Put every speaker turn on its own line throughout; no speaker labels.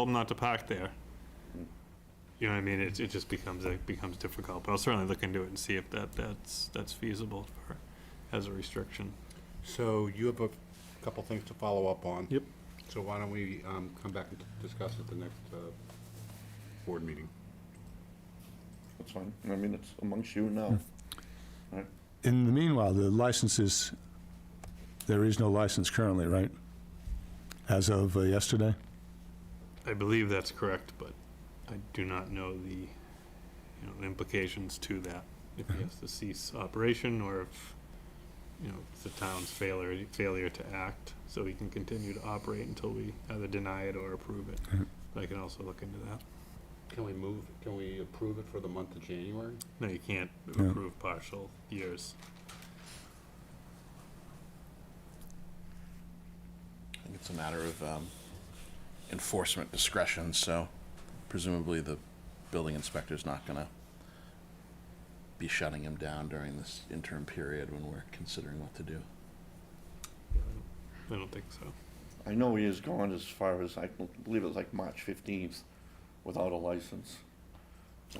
told them not to park there. You know what I mean? It, it just becomes, it becomes difficult, but I'll certainly look into it and see if that, that's, that's feasible for, as a restriction.
So you have a couple things to follow up on.
Yep.
So why don't we um, come back and discuss at the next uh, board meeting?
That's fine. I mean, it's amongst you
Hmm.
now. Right?
In the meanwhile, the licenses, there is no license currently, right? As of uh, yesterday?
I believe that's correct, but I do not know the, you know, the implications to that. If he has to cease operation or if, you know, it's the town's failure, failure to act, so he can continue to operate until we either deny it or approve it. I can also look into that.
Can we move, can we approve it for the month of January?
No, you can't
Yeah.
approve partial years.
I think it's a matter of um, enforcement discretion, so presumably the building inspector's not gonna be shutting him down during this interim period when we're considering what to do.
Yeah, I don't- I don't think so.
I know he has gone as far as, I believe it was like March 15th without a license.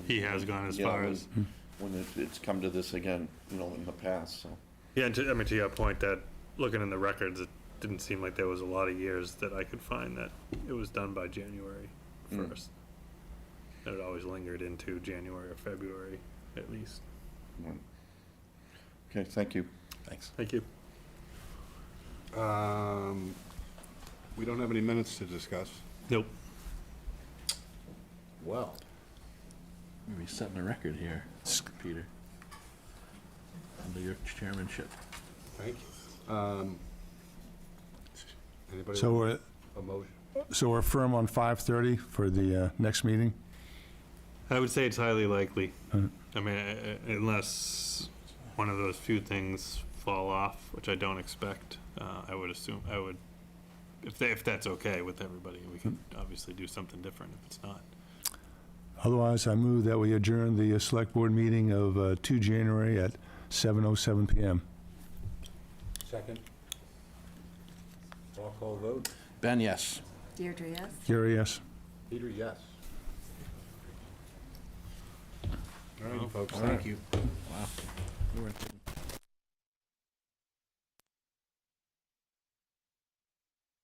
He has gone as
You know,
far
when-
as-
Hmm.
When it- it's come to this again, you know, in the past, so.
Yeah, and to, I mean, to your point that, looking in the records, it didn't seem like there was a lot of years that I could find that it was done by January
Mm.
first. That it always lingered into January or February, at least.
right. Okay, thank you.
Thanks.
Thank you.
Um, We don't have any minutes to discuss.
Nope.
Well.
We're setting a record here, Peter. Under your chairmanship.
Thank you. Um, Anybody
So
want
we're,
a motion?
so we're firm on 5:30 for the uh, next meeting?
I would say it's highly likely.
Mm.
I mean, uh, unless one of those few things fall off, which I don't expect, uh, I would assume, I would, if they, if that's okay with everybody, we can obviously do something different if it's not.
Otherwise, I move that we adjourn the uh, Select Board meeting of uh, 2 January at 7:07 PM.
Second. Roll call vote.
Ben, yes.
Deirdre, yes?
Gary, yes?
Peter, yes. All right, folks,
All right.
thank you.
Wow. We weren't thinking